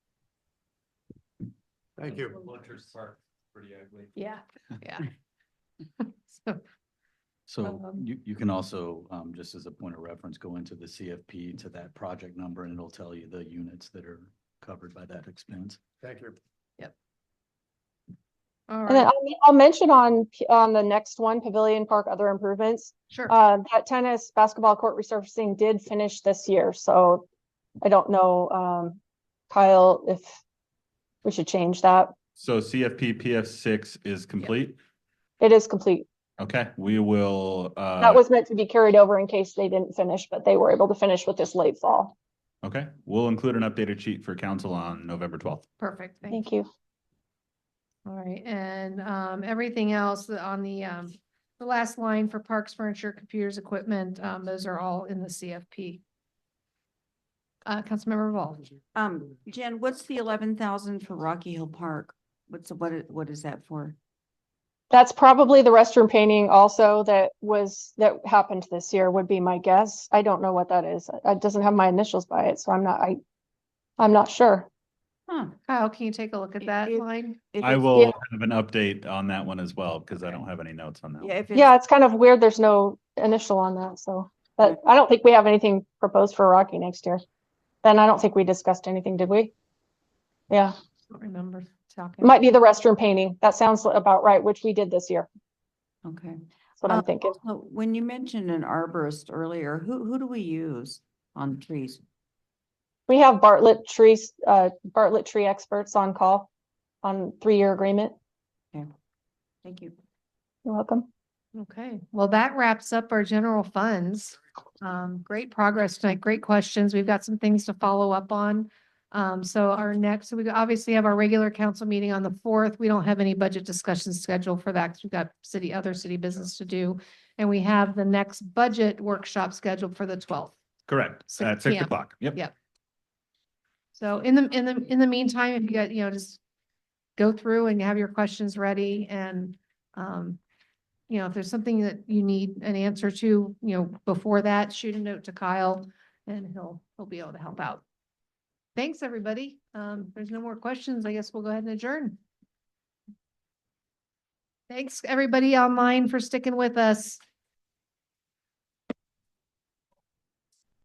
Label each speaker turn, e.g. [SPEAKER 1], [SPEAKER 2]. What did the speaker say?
[SPEAKER 1] Thank you.
[SPEAKER 2] Hunter's Park, pretty ugly.
[SPEAKER 3] Yeah, yeah. So,
[SPEAKER 4] So
[SPEAKER 3] Um,
[SPEAKER 4] you, you can also, um, just as a point of reference, go into the CFP to that project number and it'll tell you the units that are covered by that expense.
[SPEAKER 1] Thank you.
[SPEAKER 3] all
[SPEAKER 5] And then
[SPEAKER 3] right,
[SPEAKER 5] I'll, I'll mention on, P- on the next one, Pavilion Park, other improvements,
[SPEAKER 3] sure.
[SPEAKER 5] uh, that tennis basketball court resurfacing did finish this year, so I don't know, um, Kyle, if we should change that.
[SPEAKER 6] So CFP PF six is complete.
[SPEAKER 5] It is complete.
[SPEAKER 6] Okay, we will,
[SPEAKER 5] That
[SPEAKER 6] uh,
[SPEAKER 5] was meant to be carried over in case they didn't finish, but they were able to finish with this late fall.
[SPEAKER 6] okay, we'll include an updated sheet for council on November twelfth.
[SPEAKER 3] Perfect, thank
[SPEAKER 5] Thank
[SPEAKER 3] you.
[SPEAKER 5] you.
[SPEAKER 3] All right, and um, everything else on the um, the last line for parks, furniture, computers, equipment, um, those are all in the CFP. Uh, Councilmember Vol,
[SPEAKER 7] Um, Jen, what's the eleven thousand for Rocky Hill Park? What's, what, i- what is that for?
[SPEAKER 5] That's probably the restroom painting also that was, that happened this year would be my guess. I don't know what that is. It doesn't have my initials by it, so I'm not, I, I'm not sure.
[SPEAKER 7] Huh.
[SPEAKER 3] Kyle, can you take a look at
[SPEAKER 7] It-
[SPEAKER 3] that
[SPEAKER 7] it-
[SPEAKER 3] line?
[SPEAKER 7] If
[SPEAKER 6] I
[SPEAKER 7] it's-
[SPEAKER 6] will have an update on that one as well, because I don't have any notes on that.
[SPEAKER 7] Yeah,
[SPEAKER 6] one.
[SPEAKER 7] if
[SPEAKER 5] Yeah,
[SPEAKER 7] it's,
[SPEAKER 5] it's kind of weird. There's no initial on that, so, but I don't think we have anything proposed for Rocky next year. Then I don't think we discussed anything, did we? Yeah,
[SPEAKER 3] Don't remember talking.
[SPEAKER 5] it might be the restroom painting. That sounds about right, which we did this year.
[SPEAKER 7] okay.
[SPEAKER 5] That's what I'm
[SPEAKER 7] Um,
[SPEAKER 5] thinking.
[SPEAKER 7] also, When you mentioned an arborist earlier, who, who do we use on trees?
[SPEAKER 5] We have Bartlett trees, uh, Bartlett tree experts on call on three-year agreement.
[SPEAKER 7] Thank you.
[SPEAKER 5] You're welcome.
[SPEAKER 3] Okay, well, that wraps up our general funds. Um, great progress tonight, great questions. We've got some things to follow up on. Um, so our next, so we obviously have our regular council meeting on the fourth. We don't have any budget discussions scheduled for that because we've got city, other city business to do. And we have the next budget workshop scheduled for the twelfth.
[SPEAKER 6] Correct,
[SPEAKER 3] Six
[SPEAKER 6] at six
[SPEAKER 3] PM.
[SPEAKER 6] o'clock, yep.
[SPEAKER 3] Yeah. So in the, in the, in the meantime, if you got, you know, just go through and have your questions ready and, um, you know, if there's something that you need an answer to, you know, before that, shoot a note to Kyle and he'll, he'll be able to help out. Thanks, everybody. Um, if there's no more questions. I guess we'll go ahead and adjourn. Thanks, everybody online for sticking with us.